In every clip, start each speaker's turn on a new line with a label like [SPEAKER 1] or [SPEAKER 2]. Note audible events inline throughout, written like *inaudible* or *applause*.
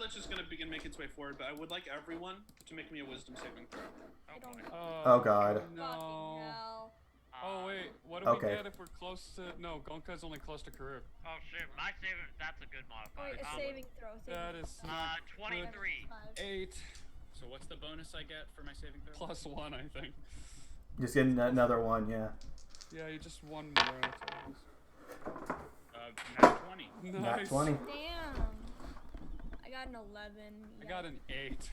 [SPEAKER 1] that's just gonna begin make its way forward, but I would like everyone to make me a wisdom saving throw.
[SPEAKER 2] Oh,
[SPEAKER 3] I don't-
[SPEAKER 2] boy.
[SPEAKER 4] Oh,
[SPEAKER 5] Oh, God.
[SPEAKER 3] Fucking
[SPEAKER 4] No.
[SPEAKER 3] hell.
[SPEAKER 2] Um,
[SPEAKER 4] Oh wait, what do we
[SPEAKER 5] Okay.
[SPEAKER 4] get if we're close to? No, Gonka's only close to Karib.
[SPEAKER 2] Oh shoot, my saving. That's a good modifier.
[SPEAKER 3] Wait, a
[SPEAKER 2] Um,
[SPEAKER 3] saving throw. Saving
[SPEAKER 4] That is
[SPEAKER 3] throw.
[SPEAKER 2] Uh,
[SPEAKER 4] not
[SPEAKER 3] Five,
[SPEAKER 2] 23.
[SPEAKER 3] five.
[SPEAKER 4] eight
[SPEAKER 6] So what's the bonus I get for my saving throw?
[SPEAKER 4] plus one, I think.
[SPEAKER 5] Just get an- another one, yeah.
[SPEAKER 4] Yeah, you just one more. that's
[SPEAKER 6] Uh,
[SPEAKER 4] all
[SPEAKER 6] nat 20.
[SPEAKER 4] it is.
[SPEAKER 5] Not
[SPEAKER 4] Nice.
[SPEAKER 5] 20.
[SPEAKER 3] Damn. I got an 11.
[SPEAKER 4] I got an eight.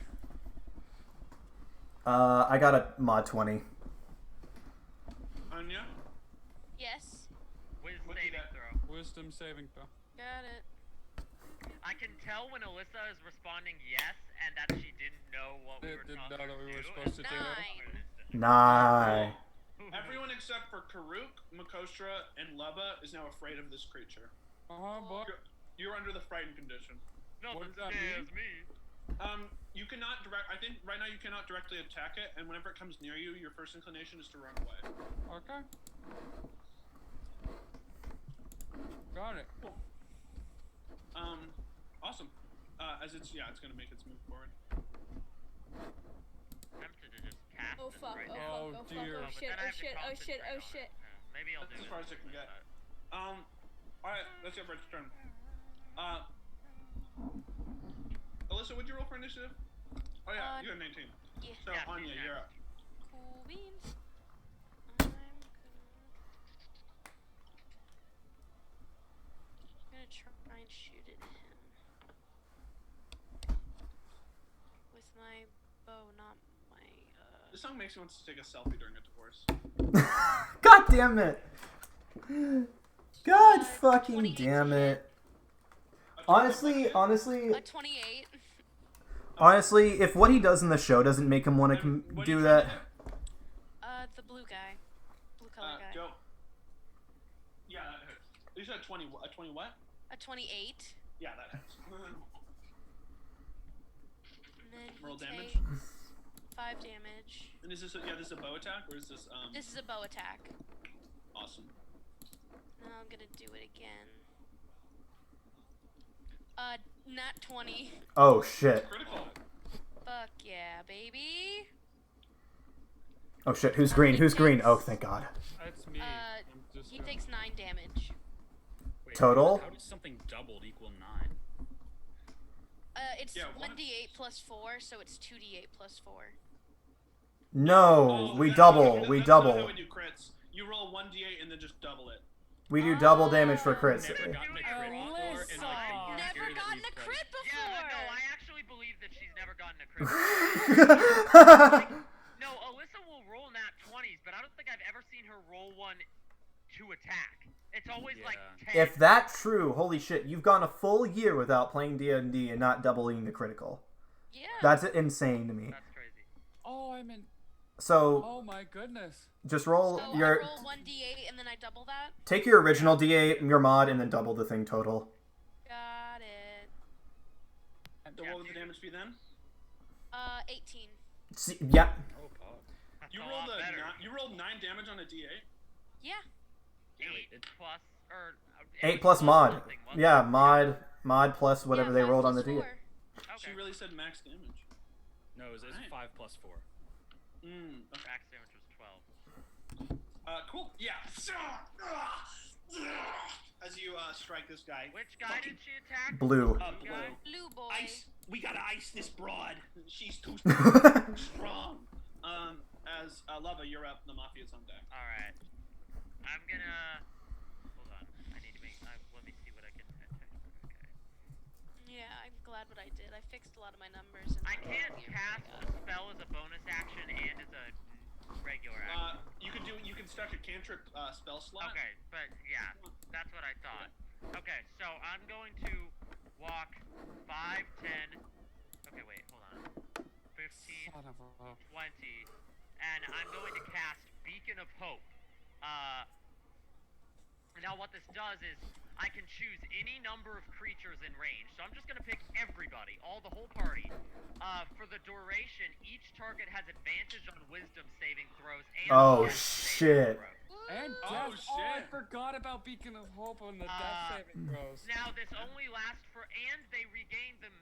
[SPEAKER 5] Uh, I got a mod 20.
[SPEAKER 1] Anya,
[SPEAKER 7] Yes.
[SPEAKER 2] Whiz
[SPEAKER 1] What'd you
[SPEAKER 2] saving
[SPEAKER 1] got?
[SPEAKER 2] throw.
[SPEAKER 4] Wisdom saving throw.
[SPEAKER 7] Got it.
[SPEAKER 2] I can tell when Alyssa is responding yes and that she didn't know what we
[SPEAKER 4] It
[SPEAKER 2] were
[SPEAKER 4] didn't
[SPEAKER 2] talking
[SPEAKER 4] know that we were
[SPEAKER 2] to *laughs*
[SPEAKER 4] supposed to do that.
[SPEAKER 7] Nine.
[SPEAKER 5] Nine.
[SPEAKER 1] everyone except for Karuk, Makostra, and Leba is now afraid of this creature.
[SPEAKER 4] Uh huh, boy.
[SPEAKER 1] You're, you're under the frightened condition.
[SPEAKER 2] Nothing
[SPEAKER 4] What does that
[SPEAKER 2] scares me.
[SPEAKER 1] Um, you cannot direct. I think right now you cannot directly attack it, and whenever it comes near you, your first inclination is to run away.
[SPEAKER 4] Okay. Got it.
[SPEAKER 1] Um, awesome. Uh, as it's yeah, it's gonna make its move forward.
[SPEAKER 2] Tempted to just cast
[SPEAKER 3] Oh
[SPEAKER 2] this
[SPEAKER 3] fuck,
[SPEAKER 2] right
[SPEAKER 3] oh
[SPEAKER 2] now.
[SPEAKER 4] Oh,
[SPEAKER 3] fuck, oh fuck,
[SPEAKER 4] dear.
[SPEAKER 2] Uh,
[SPEAKER 3] oh
[SPEAKER 2] but
[SPEAKER 3] shit,
[SPEAKER 2] then I
[SPEAKER 3] oh
[SPEAKER 2] have to
[SPEAKER 3] shit, oh shit,
[SPEAKER 2] concentrate
[SPEAKER 3] oh
[SPEAKER 2] on it.
[SPEAKER 3] shit.
[SPEAKER 2] Yeah, Maybe I'll
[SPEAKER 1] That's
[SPEAKER 2] do
[SPEAKER 1] as far
[SPEAKER 2] it Uh,
[SPEAKER 1] as it can
[SPEAKER 2] like
[SPEAKER 1] get.
[SPEAKER 2] that.
[SPEAKER 1] Um, all right, that's your first turn. Uh, Alyssa, would you roll for initiative? Oh yeah,
[SPEAKER 7] Uh,
[SPEAKER 1] you got 19.
[SPEAKER 7] Yeah.
[SPEAKER 1] So
[SPEAKER 2] yeah,
[SPEAKER 1] Anya,
[SPEAKER 2] yeah.
[SPEAKER 1] you're up.
[SPEAKER 7] Cool beans. I'm gonna. I'm gonna try and shoot at him. With my bow, not my. Uh,
[SPEAKER 1] This song makes me want to take a selfie during a divorce.
[SPEAKER 5] God damn it. God
[SPEAKER 7] Uh,
[SPEAKER 5] fucking
[SPEAKER 7] 28
[SPEAKER 5] damn it.
[SPEAKER 1] A total
[SPEAKER 5] Honestly,
[SPEAKER 1] of-
[SPEAKER 5] honestly,
[SPEAKER 7] uh, a 28.
[SPEAKER 5] honestly, if what he does in the show doesn't make him want to com-
[SPEAKER 1] What are you
[SPEAKER 5] do
[SPEAKER 1] trying
[SPEAKER 5] that,
[SPEAKER 1] to
[SPEAKER 7] Uh, the blue guy. Blue
[SPEAKER 1] hit? Uh,
[SPEAKER 7] color guy.
[SPEAKER 1] go. Yeah, that hurts. You said 20. wh- A 20 what?
[SPEAKER 7] A 28.
[SPEAKER 1] Yeah, that hurts.
[SPEAKER 2] *laughs*
[SPEAKER 7] And then he
[SPEAKER 1] Roll damage?
[SPEAKER 7] takes 5 damage.
[SPEAKER 1] and is this a, yeah? This is a bow attack or is this um?
[SPEAKER 7] This is a bow attack.
[SPEAKER 1] awesome.
[SPEAKER 7] Now I'm gonna do it again. Uh, not 20.
[SPEAKER 5] oh shit,
[SPEAKER 1] Critical.
[SPEAKER 7] Fuck yeah, baby.
[SPEAKER 5] oh shit, who's green? Who's green? Oh, thank God.
[SPEAKER 4] That's me.
[SPEAKER 7] Uh,
[SPEAKER 4] I'm just
[SPEAKER 7] He
[SPEAKER 4] gonna-
[SPEAKER 7] takes 9 damage.
[SPEAKER 6] Wait,
[SPEAKER 5] Total?
[SPEAKER 6] How did something doubled equal 9?
[SPEAKER 7] Uh, it's
[SPEAKER 1] Yeah, what?
[SPEAKER 7] 1d8 plus 4, so it's 2d8 plus 4.
[SPEAKER 5] No,
[SPEAKER 1] Oh,
[SPEAKER 5] we
[SPEAKER 1] that's not-
[SPEAKER 5] double,
[SPEAKER 1] that's
[SPEAKER 5] we
[SPEAKER 1] not How
[SPEAKER 5] double,
[SPEAKER 1] we do crits. You roll 1d8 and then just double it.
[SPEAKER 5] we
[SPEAKER 1] Oh,
[SPEAKER 5] do double damage for crits.
[SPEAKER 6] Never gotten a crit before, and I think
[SPEAKER 4] Alyssa.
[SPEAKER 6] it's
[SPEAKER 7] Never
[SPEAKER 6] scary that
[SPEAKER 7] gotten
[SPEAKER 6] we've
[SPEAKER 7] a
[SPEAKER 6] tried-
[SPEAKER 7] crit before!
[SPEAKER 2] Yeah, but no, I actually believe that she's never gotten a crit.
[SPEAKER 5] *laughs*
[SPEAKER 2] no, Alyssa will roll nat 20s, but I don't think I've ever seen her roll one to attack. It's always like
[SPEAKER 6] Yeah.
[SPEAKER 2] 10.
[SPEAKER 5] if that's true, holy shit, you've gone a full year without playing D and D and not doubling the critical.
[SPEAKER 7] Yeah.
[SPEAKER 5] That's insane to me.
[SPEAKER 2] That's crazy.
[SPEAKER 4] Oh, I'm in.
[SPEAKER 5] So
[SPEAKER 4] Oh my goodness.
[SPEAKER 5] just roll
[SPEAKER 7] so
[SPEAKER 5] your
[SPEAKER 7] Oh, I roll 1d8 and then I double that.
[SPEAKER 5] take your original D8, your mod, and then double the thing total.
[SPEAKER 7] Got it.
[SPEAKER 1] So what would the damage be then?
[SPEAKER 7] Uh, 18.
[SPEAKER 5] See, yeah,
[SPEAKER 6] Oh, God.
[SPEAKER 2] That's
[SPEAKER 1] You
[SPEAKER 2] a
[SPEAKER 1] rolled
[SPEAKER 2] lot
[SPEAKER 1] a
[SPEAKER 2] better.
[SPEAKER 1] nine, you rolled nine damage on a d8.
[SPEAKER 7] Yeah.
[SPEAKER 2] Eight
[SPEAKER 6] It-
[SPEAKER 2] plus or uh, it
[SPEAKER 5] eight
[SPEAKER 2] was
[SPEAKER 5] plus mod.
[SPEAKER 2] something, wasn't
[SPEAKER 5] Yeah,
[SPEAKER 2] it?
[SPEAKER 5] mod mod plus whatever
[SPEAKER 7] Yeah,
[SPEAKER 5] they
[SPEAKER 7] five
[SPEAKER 5] rolled on the
[SPEAKER 7] plus
[SPEAKER 5] D8.
[SPEAKER 7] four.
[SPEAKER 2] Okay.
[SPEAKER 1] She really said max damage.
[SPEAKER 6] No, it's, it's
[SPEAKER 1] Alright.
[SPEAKER 6] 5 plus 4.
[SPEAKER 1] Mm, okay.
[SPEAKER 2] Max damage was twelve.
[SPEAKER 1] Uh, cool. Yeah. As you uh, strike this guy,
[SPEAKER 2] Which guy did she attack?
[SPEAKER 5] Blue.
[SPEAKER 1] uh,
[SPEAKER 2] Blue
[SPEAKER 1] blue.
[SPEAKER 2] guy?
[SPEAKER 7] Blue boy.
[SPEAKER 1] Ice. We gotta ice this broad. She's too strong. Um, as uh, Lava, you're up. The mafia's on deck.
[SPEAKER 2] All right. I'm gonna hold on. I need to make. I, let me see what I can. attack. Okay.
[SPEAKER 7] Yeah, I'm glad what I did. I fixed a lot of my numbers. And
[SPEAKER 2] I
[SPEAKER 7] my
[SPEAKER 2] can't
[SPEAKER 7] gear.
[SPEAKER 2] cast a spell as a bonus action and as a regular
[SPEAKER 1] Uh,
[SPEAKER 2] action.
[SPEAKER 1] you can do. You can stack a cantrip uh, spell slot.
[SPEAKER 2] Okay, but yeah, that's what I thought. Okay, so I'm going to walk 5, 10. Okay, wait, hold on. 15,
[SPEAKER 4] Son of a-
[SPEAKER 2] 20, and I'm going to cast Beacon of Hope. Uh, now, what this does is I can choose any number of creatures in range. So I'm just going to pick everybody, all the whole party. Uh, for the duration, each target has advantage on Wisdom saving throws. And
[SPEAKER 5] Oh,
[SPEAKER 2] death saving
[SPEAKER 5] shit.
[SPEAKER 2] throws.
[SPEAKER 4] And
[SPEAKER 1] Oh,
[SPEAKER 4] death. Oh, I
[SPEAKER 1] shit.
[SPEAKER 4] forgot about Beacon of Hope on the
[SPEAKER 2] Uh,
[SPEAKER 4] death saving throws.
[SPEAKER 2] Now this only lasts for, and they regain the